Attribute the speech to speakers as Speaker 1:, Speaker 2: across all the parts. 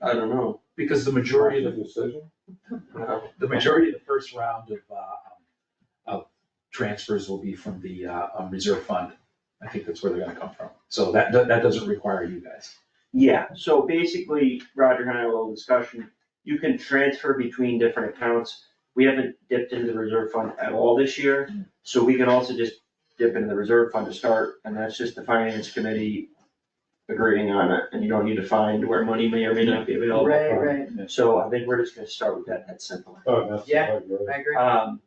Speaker 1: I don't know, Uh, because the majority of
Speaker 2: Decision?
Speaker 1: the,
Speaker 3: The majority of the first round of, uh, um, of transfers will be from the, uh, um, reserve fund. I think that's where they're gonna come from. So that, that that doesn't require you guys.
Speaker 4: Yeah, so basically, Roger and I had a little discussion, you can transfer between different accounts. We haven't dipped into the reserve fund at all this year, so we can also just dip into the reserve fund to start, and that's just the finance committee agreeing on it, and you don't need to find where money may or may not be available.
Speaker 2: Right,
Speaker 5: right,
Speaker 4: So I think we're just gonna start with that, that's simple.
Speaker 2: Oh, that's.
Speaker 5: Yeah.
Speaker 2: not good.
Speaker 5: I agree.
Speaker 4: Um,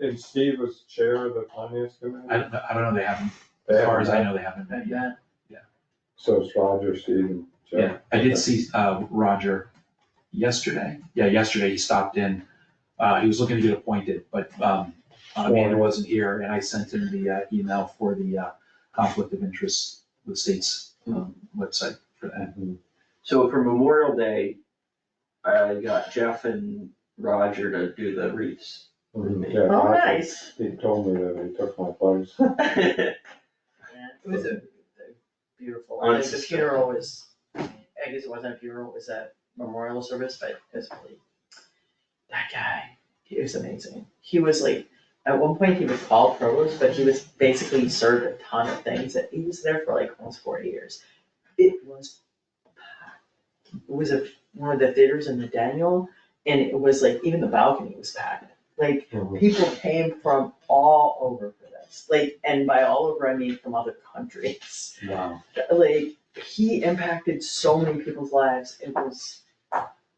Speaker 2: And Steve was chair of the finance committee?
Speaker 3: I don't, know- I don't know, they haven't,
Speaker 2: They
Speaker 3: as far
Speaker 2: haven't
Speaker 3: as I
Speaker 2: met.
Speaker 3: know, they haven't met yet.
Speaker 2: So it's Roger, Steve and
Speaker 3: Yeah,
Speaker 2: Jeff.
Speaker 3: I did see, uh, Roger yesterday. Yeah, yesterday he stopped in. Uh, he was looking to get appointed, but, um, Amanda wasn't here and I sent him the, uh, email for the, uh, conflict of interest, the state's, um, website for that.
Speaker 2: Mhm.
Speaker 4: so for Memorial Day, I got Jeff and Roger to do the wreaths.
Speaker 2: Mhm. Yeah,
Speaker 5: Oh,
Speaker 2: Roger,
Speaker 5: nice.
Speaker 2: He told me that he took my place.
Speaker 5: Yeah, It was a a beautiful,
Speaker 4: Oh,
Speaker 5: like
Speaker 4: it's
Speaker 5: the
Speaker 4: just-
Speaker 5: funeral was, I guess it wasn't a funeral, it was a memorial service, but it was really, that guy, he was amazing. He was like, at one point he was called provost, but he was basically served a ton of things, that he was there for like almost forty years. It was, packed. it was a, one of the theaters in the Daniel, and it was like, even the balcony was packed, like,
Speaker 2: Mhm.
Speaker 5: people came from all over for this, like, and by all over, I mean from other countries.
Speaker 3: Wow.
Speaker 5: Like, he impacted so many people's lives, it was,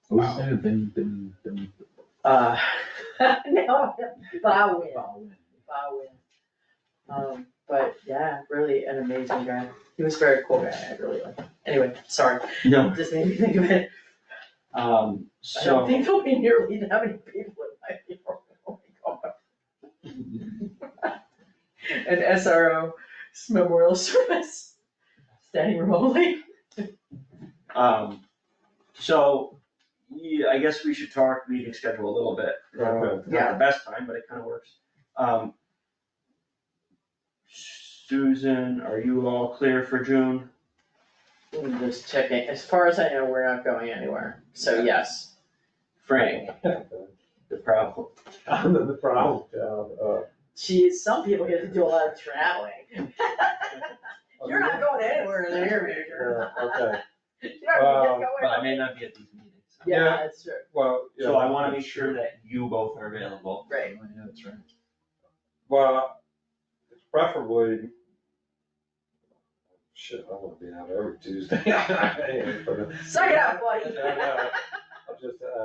Speaker 3: What's his name? Ben, Ben, Ben.
Speaker 5: uh, no, Bowen, Bowen. Um, but yeah, really an amazing guy, he was a very cool guy, I really liked him, anyway, sorry,
Speaker 4: No,
Speaker 5: just made me think of it,
Speaker 4: um,
Speaker 5: I
Speaker 4: so.
Speaker 5: don't think there'll be nearly that many people in my funeral, oh my god. an SRO 's memorial service, standing remotely.
Speaker 4: Um, so, yeah, I guess we should talk meeting schedule a little bit.
Speaker 2: Okay.
Speaker 4: Not the best time, but it kind of works. Um, Susan, are you all clear for June?
Speaker 5: I'm just checking, as far as I know, we're not going anywhere, so yes.
Speaker 4: Frank, the problem.
Speaker 2: I'm in the problem child, uh.
Speaker 5: Geez, some people get to do a lot of traveling. You're not going anywhere in the near future.
Speaker 2: Yeah, uh, okay,
Speaker 5: You're not
Speaker 4: But I
Speaker 5: going
Speaker 4: may not be at these meetings.
Speaker 5: Yeah, that's true,
Speaker 2: well, yeah.
Speaker 4: So I wanna make sure that you both are available.
Speaker 5: right,
Speaker 3: Yeah, that's right.
Speaker 2: Well, it's preferably. Shit, I'm gonna be out every Tuesday.
Speaker 5: suck it up, buddy.
Speaker 4: I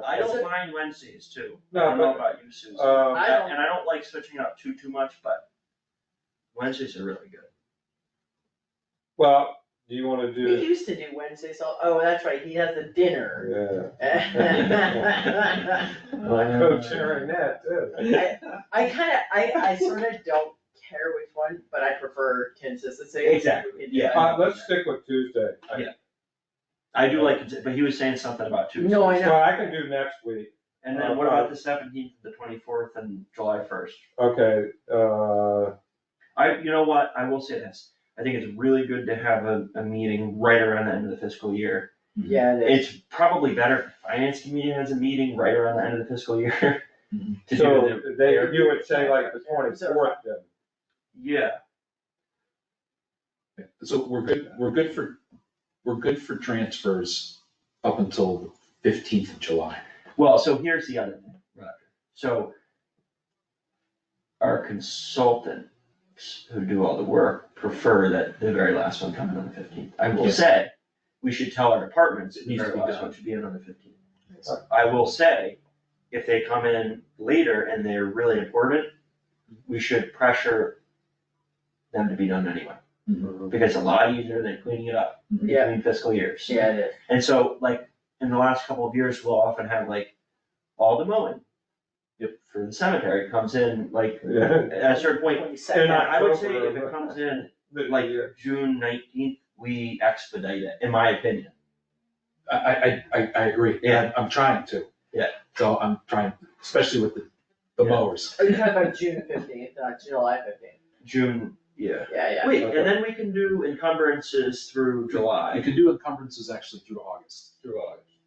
Speaker 2: I
Speaker 4: don't mind Wednesdays too. I
Speaker 2: No,
Speaker 4: don't know
Speaker 2: but-
Speaker 4: about you, Susan.
Speaker 2: Uh,
Speaker 4: And
Speaker 5: I don't-
Speaker 4: and I don't like switching up too, too much, but Wednesdays are really good.
Speaker 2: well, do you wanna
Speaker 5: We
Speaker 2: do,
Speaker 5: used to do Wednesdays, all- oh, that's right, he has the dinner.
Speaker 2: yeah,
Speaker 5: I
Speaker 4: Oh,
Speaker 2: I'm co-chairing oh, that too.
Speaker 5: kinda, I, I sorta don't care which one, but I prefer consistency.
Speaker 4: Exactly, yeah.
Speaker 2: Uh, let's stick with Tuesday. I-
Speaker 4: Yeah. I do like, it, but he was saying something about Tuesdays.
Speaker 5: No, I know.
Speaker 2: Well, I can do next week,
Speaker 4: And then what about the seventeenth, the twenty-fourth and July first?
Speaker 2: okay, uh,
Speaker 4: I, you know what, I will say this, I think it's really good to have a, a meeting right around the end of the fiscal year.
Speaker 5: Yeah, it is.
Speaker 4: It's probably better if finance committee has a meeting right around the end of the fiscal year.
Speaker 3: Mhm.
Speaker 4: To do
Speaker 2: so
Speaker 4: the,
Speaker 2: they, you would say like the
Speaker 5: Reserve.
Speaker 2: twenty-fourth then.
Speaker 4: yeah,
Speaker 3: So we're good, we're good for, we're good for transfers up until the fifteenth of July.
Speaker 4: well, so here's the other thing, Roger, so. Our consultants who do all the work prefer that the very last one come in on the fifteenth, I will
Speaker 3: Yeah.
Speaker 4: say, we should tell our departments,
Speaker 3: It
Speaker 4: the
Speaker 3: needs to
Speaker 4: very
Speaker 3: be
Speaker 4: last
Speaker 3: done.
Speaker 4: one should be in on the fifteenth. I will say, if they come in later and they're really important, we should pressure them to be done anyway, because it's a lot easier than cleaning it up
Speaker 5: Yeah.
Speaker 4: between fiscal years.
Speaker 5: Yeah, it is.
Speaker 4: And so, like, in the last couple of years, we'll often have like, all the mowing.
Speaker 3: Yep.
Speaker 4: For the cemetery comes in, like,
Speaker 2: Yeah.
Speaker 4: at a certain point,
Speaker 2: And
Speaker 4: and I would say if
Speaker 2: October,
Speaker 4: it comes in,
Speaker 2: The-
Speaker 4: like,
Speaker 2: yeah.
Speaker 4: June nineteenth, we expedite it, in my opinion.
Speaker 3: I, I, I, I agree.
Speaker 4: Yeah.
Speaker 3: I'm trying to.
Speaker 4: Yeah.
Speaker 3: So I'm trying, especially with the, the
Speaker 4: Yeah.
Speaker 3: mowers.
Speaker 5: Are Oh, you talking about June fifteenth, not July fifteenth?
Speaker 4: June, yeah.
Speaker 5: Yeah, yeah.
Speaker 4: Wait, and then we can do encumbrances through July.
Speaker 3: You can do encumbrances actually through August.
Speaker 4: Through August.